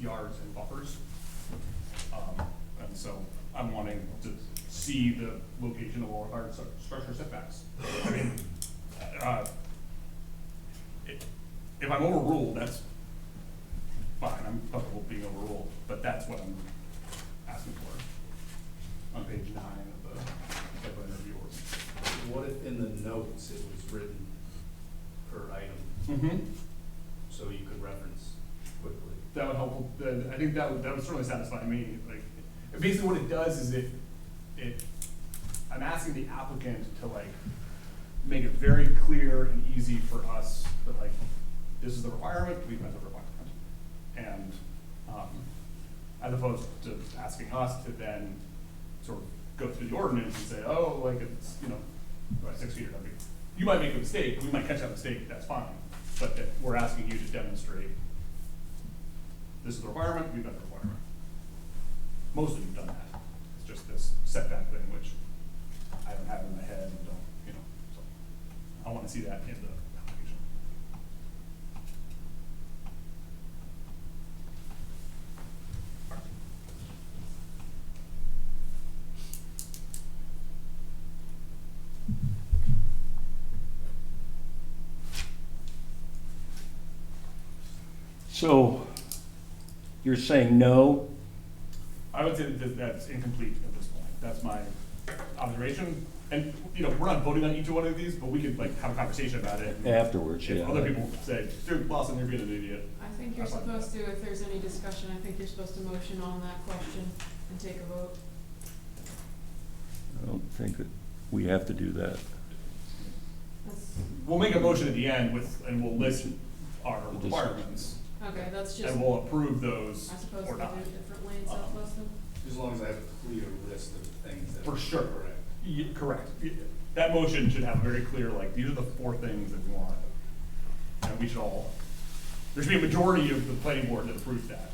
yards and buffers. Um, and so I'm wanting to see the location of all of our stru- structure setbacks. I mean, uh, i- if I'm overruled, that's fine, I'm comfortable being overruled, but that's what I'm asking for on page nine of the site plan review ordinance. What if in the notes it was written per item, Mm-hmm. so you could reference quickly? that would help, that- I think that would, that would certainly satisfy me, like, basically what it does is it, it, I'm asking the applicant to like, make it very clear and easy for us that like, this is the requirement, we've met the requirement. And, um, as opposed to asking us to then sort of go through the ordinance and say, oh, like, it's, you know, right, six feet or something. You might make a mistake, we might catch that mistake, that's fine, but that we're asking you to demonstrate this is the requirement, we've got the requirement. Most of you have done that, it's just this setback thing, which I don't have in my head and don't, you know, so. I wanna see that in the application. So you're saying no? I would say that th- that's incomplete at this point, that's my observation, and, you know, we're not voting on each one of these, but we could like have a conversation about it. and Afterwards, yeah. If other people say, dude, Lawson, you're being an idiot, I think you're supposed to, if there's any discussion, I think you're supposed to motion on that question and take a vote. I don't think that we have to do that. That's, we'll make a motion at the end with, and we'll list our Just- requirements, okay, that's just, and I we'll approve those suppose we or do not. Uh-huh. it differently in South Boston. As long as I have a clear list of things that. For sure. Correct. Ye- Correct. Ye- That motion should have very clear, like, these are the four things that we want. And we should all, there should be a majority of the planning board that approves that.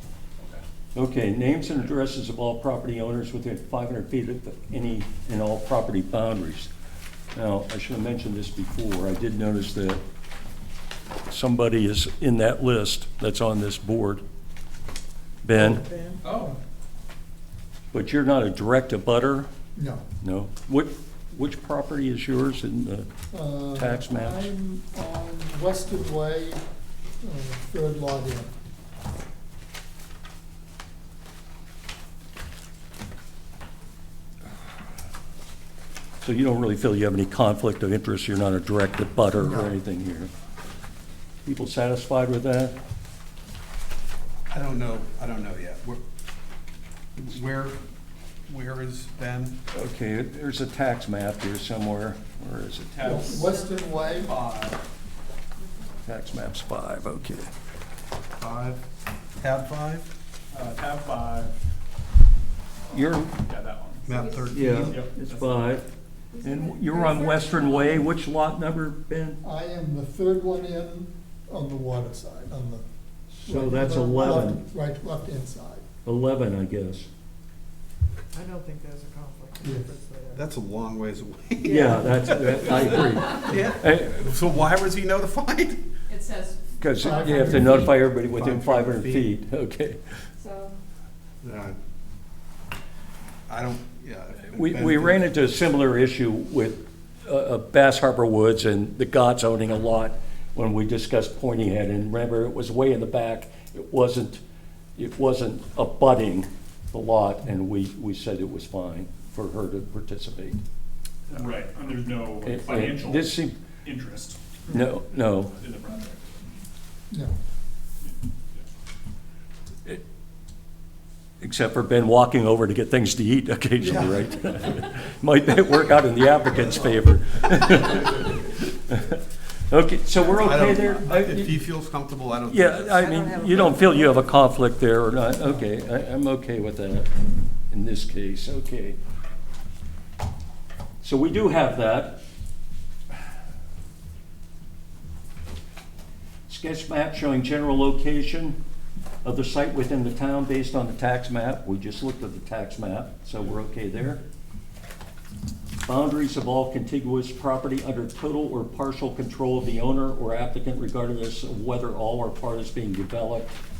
Okay. Okay, names and addresses of all property owners within 500 feet of any and all property boundaries. Now, I should have mentioned this before. I did notice that somebody is in that list that's on this board. Ben, Oh. but you're not a direct abutter? No. No? What, which property is yours in the, Uh, Tax maps. I'm on Western Way, uh, third lot in. so you don't really feel you have any conflict of interest? You're not a direct abutter No. or anything here? People satisfied with that? I don't know, I don't know yet. Where- Where, where is Ben? Okay, there's a tax map here somewhere. Where is it? House Western Way, five. Tax maps five, okay. Five? Tab five? Uh, tab five, You're, yeah, that one. Map thirteen? yeah, Yep, it's that's- five. And you're on Western Way, which lot number, Ben? I am the third one in on the water side, on the. So that's left- 11. Right, left inside. Eleven, I guess. I don't think there's a conflict Yeah. of interest there. That's a long ways away. Yeah, that's, that- I agree. Yeah. So why was he notified? It says, Because you have to notify everybody within five 500 hundred feet, okay. so, No. Uh, I don't, yeah. We, Ben we did- ran into a similar issue with uh, uh, Bass Harbor Woods and the Gods owning a lot when we discussed Pointy Head, and remember, it was way in the back. It wasn't, it wasn't abutting the lot, and we, we said it was fine for her to participate. Right, and there's no It- it- financial This seemed, interest no, no, in the project. No, except for Ben walking over to get things to eat occasionally, right? Might that work out in the applicant's favor? Okay, so we're okay I don't- there? I- If he feels comfortable, I don't. Yeah, I don't have mean, a you don't problem. feel you have a conflict there or not, okay, I, I'm okay with that in this case, okay. So we do have that. Sketch map showing general location of the site within the town based on the tax map, we just looked at the tax map, so we're okay there. Boundaries of all contiguous property under total or partial control of the owner or applicant regardless of whether all or part is being developed Uh,